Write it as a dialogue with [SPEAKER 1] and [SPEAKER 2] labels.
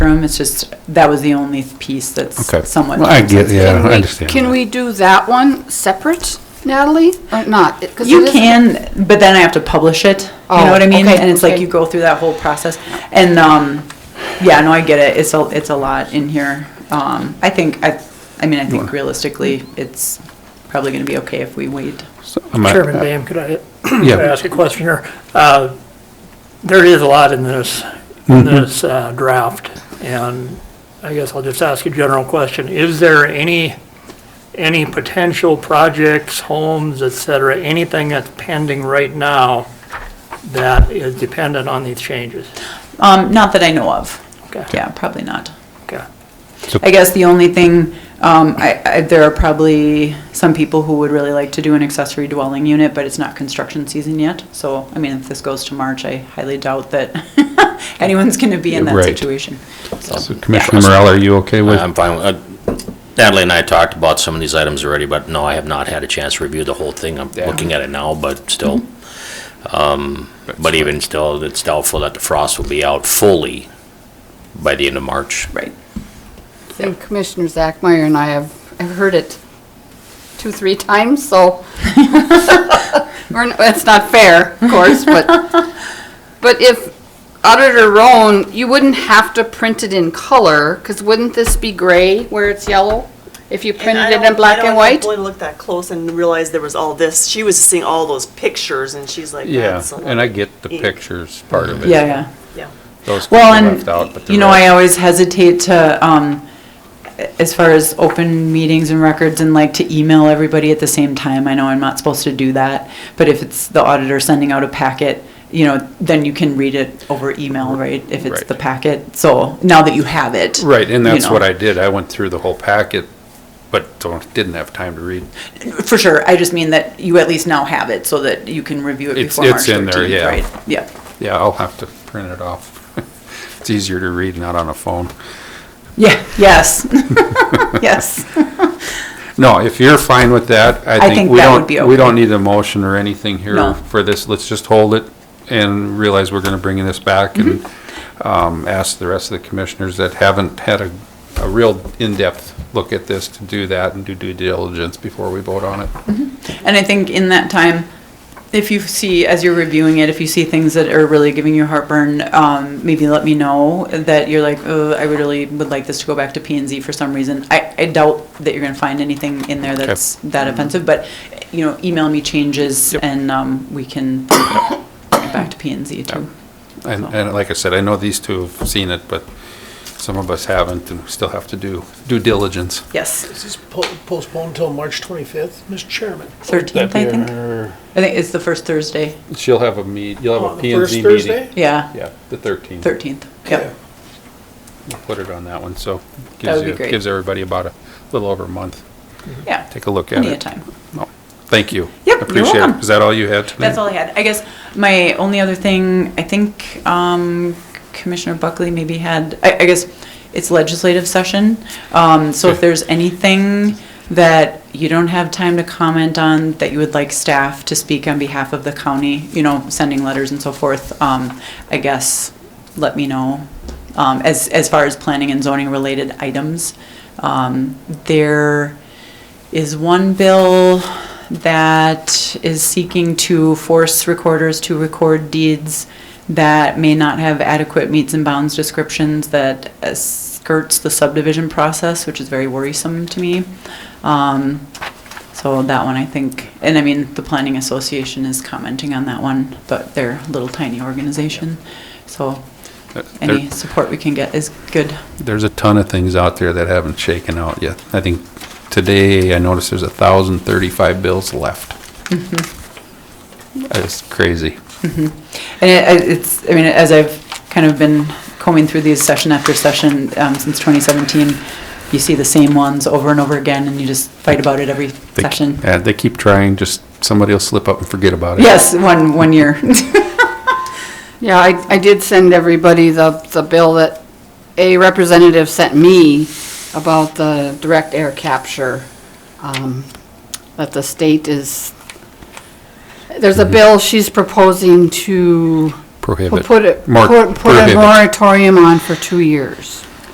[SPEAKER 1] room, it's just, that was the only piece that's
[SPEAKER 2] Okay.
[SPEAKER 1] somewhat.
[SPEAKER 2] Well, I get, yeah,
[SPEAKER 3] Can
[SPEAKER 2] I
[SPEAKER 3] we-
[SPEAKER 2] understand.
[SPEAKER 3] Can
[SPEAKER 2] that.
[SPEAKER 3] we do that one separate, Natalie, or not? It- 'cause
[SPEAKER 1] You
[SPEAKER 3] it is-
[SPEAKER 1] can, but then I have to publish it, you know
[SPEAKER 3] Oh,
[SPEAKER 1] what I mean?
[SPEAKER 3] okay,
[SPEAKER 1] And it's like
[SPEAKER 3] okay.
[SPEAKER 1] you go through that whole process, and, um, yeah, no, I get it, it's a, it's a lot in here. Um, I think, I, I mean, I think realistically, it's probably gonna be okay if we wait.
[SPEAKER 2] So, I'm not-
[SPEAKER 4] Chairman Bam, could I
[SPEAKER 2] Yeah.
[SPEAKER 4] could I ask a question here? Uh, There is a lot in this, in this uh, draft, and I guess I'll just ask a general question. Is there any, any potential projects, homes, et cetera, anything that's pending right now that is dependent on these changes?
[SPEAKER 1] Um, not that I know of.
[SPEAKER 4] Okay.
[SPEAKER 1] Yeah, probably not.
[SPEAKER 4] Okay.
[SPEAKER 1] I guess the only thing, um, I, I, there are probably some people who would really like to do an accessory dwelling unit, but it's not construction season yet. So, I mean, if this goes to March, I highly doubt that anyone's gonna be in that
[SPEAKER 2] Right.
[SPEAKER 1] situation.
[SPEAKER 2] So Commissioner Morel, are you okay with?
[SPEAKER 5] I'm fine. with- uh, Natalie and I talked about some of these items already, but no, I have not had a chance to review the whole thing. I'm looking at it now, but still. Um, But even still, it's doubtful that the frost will be out fully by the end of March.
[SPEAKER 1] Right.
[SPEAKER 3] And Commissioner Zachmeyer and I have, I've heard it two, three times, so we're n- it's not fair, of course, but, but if Auditor Roan, you wouldn't have to print it in color, because wouldn't this be gray where it's yellow? If you
[SPEAKER 6] I
[SPEAKER 3] printed it in
[SPEAKER 6] don't-
[SPEAKER 3] black and white?
[SPEAKER 6] I don't think Blaine looked that close and realized there was all this. She was seeing all those pictures and she's like,
[SPEAKER 2] Yeah,
[SPEAKER 6] that's a
[SPEAKER 2] and
[SPEAKER 6] lot.
[SPEAKER 2] I get the
[SPEAKER 6] Ink.
[SPEAKER 2] pictures part of it.
[SPEAKER 1] Yeah, yeah.
[SPEAKER 6] Yeah.
[SPEAKER 2] Those could be
[SPEAKER 1] Well,
[SPEAKER 2] left out, but
[SPEAKER 1] and,
[SPEAKER 2] the
[SPEAKER 1] you know, I
[SPEAKER 2] rest-
[SPEAKER 1] always hesitate to, um, as far as open meetings and records and like to email everybody at the same time. I know I'm not supposed to do that, but if it's the auditor sending out a packet, you know, then you can read it over email, right? If it's
[SPEAKER 2] Right.
[SPEAKER 1] the packet, so now that you have it.
[SPEAKER 2] Right, and
[SPEAKER 1] you
[SPEAKER 2] that's what
[SPEAKER 1] know.
[SPEAKER 2] I did. I went through the whole packet, but don't, didn't have time to read.
[SPEAKER 1] For sure, I just mean that you at least now have it so that you can review it
[SPEAKER 2] It's-
[SPEAKER 1] before March
[SPEAKER 2] it's in there, yeah.
[SPEAKER 1] thirteenth, right? Yeah.
[SPEAKER 2] Yeah, I'll have to print it off. It's easier to read, not on a phone.
[SPEAKER 1] Yeah, yes. Yes.
[SPEAKER 2] No, if you're fine with that,
[SPEAKER 1] I
[SPEAKER 2] I think
[SPEAKER 1] think
[SPEAKER 2] we
[SPEAKER 1] that
[SPEAKER 2] don't,
[SPEAKER 1] would be
[SPEAKER 2] we
[SPEAKER 1] okay.
[SPEAKER 2] don't need a motion or anything here
[SPEAKER 1] No.
[SPEAKER 2] for this. Let's just hold it and realize we're gonna bring this back and,
[SPEAKER 1] Mm-hmm.
[SPEAKER 2] um, ask the rest of the commissioners that haven't had a, a real in-depth look at this to do that and do due diligence before we vote on it.
[SPEAKER 1] And I think in that time, if you see, as you're reviewing it, if you see things that are really giving you heartburn, um, maybe let me know that you're like, oh, I really would like this to go back to P and Z for some reason. I, I doubt that you're gonna find anything in there that's that offensive, but, you know, email me changes and, um, we can bring it back to P and Z too.
[SPEAKER 2] And, and like I said, I know these two have seen it, but some of us haven't and we still have to do due diligence.
[SPEAKER 1] Yes,
[SPEAKER 7] Is this po- postponed until March 25th, Mr. Chairman?
[SPEAKER 1] thirteenth, I think. I think it's the first Thursday.
[SPEAKER 2] She'll have a meet, you'll have
[SPEAKER 7] On
[SPEAKER 2] a
[SPEAKER 7] the
[SPEAKER 2] P and
[SPEAKER 7] first
[SPEAKER 2] Z
[SPEAKER 7] Thursday?
[SPEAKER 2] meeting.
[SPEAKER 1] Yeah,
[SPEAKER 2] Yeah, the thirteenth.
[SPEAKER 1] thirteenth. Yep.
[SPEAKER 2] Put it on that one, so.
[SPEAKER 1] That would
[SPEAKER 2] gives
[SPEAKER 1] be
[SPEAKER 2] you-
[SPEAKER 1] great.
[SPEAKER 2] Gives everybody about a little over a month.
[SPEAKER 1] Yeah.
[SPEAKER 2] Take a look at it.
[SPEAKER 1] Plenty of time.
[SPEAKER 2] No, Thank you.
[SPEAKER 1] Yep, you're
[SPEAKER 2] Appreciate it.
[SPEAKER 1] welcome.
[SPEAKER 2] Is that all you had tonight?
[SPEAKER 1] That's all I had. I guess my only other thing, I think um, Commissioner Buckley maybe had, I, I guess it's legislative session. Um, So if there's anything that you don't have time to comment on, that you would like staff to speak on behalf of the county, you know, sending letters and so forth, um, I guess, let me know. Um, As, as far as planning and zoning related items, um, there is one bill that is seeking to force recorders to record deeds that may not have adequate meets and bounds descriptions that uh, skirts the subdivision process, which is very worrisome to me. Um, So that one, I think, and I mean, the Planning Association is commenting on that one, but they're a little tiny organization. So
[SPEAKER 2] There-
[SPEAKER 1] any support we can get is good.
[SPEAKER 2] There's a ton of things out there that haven't shaken out yet. I think today I noticed there's a thousand thirty-five bills left.
[SPEAKER 1] Mm-hmm.
[SPEAKER 2] That's crazy.
[SPEAKER 1] And it- I- it's, I mean, as I've kind of been combing through these session after session um, since 2017, you see the same ones over and over again, and you just fight about it every
[SPEAKER 2] They-
[SPEAKER 1] session.
[SPEAKER 2] Yeah, they keep trying, just somebody will slip up and forget about it.
[SPEAKER 1] Yes, one, one year.
[SPEAKER 3] Yeah, I, I did send everybody the, the bill that a representative sent me about the direct air capture, um, that the state is, there's a bill she's proposing to
[SPEAKER 2] Mm-hmm. Prohibit.
[SPEAKER 3] put it,
[SPEAKER 2] Mor-
[SPEAKER 3] put put a
[SPEAKER 2] prohibit.
[SPEAKER 3] moratorium on for two years.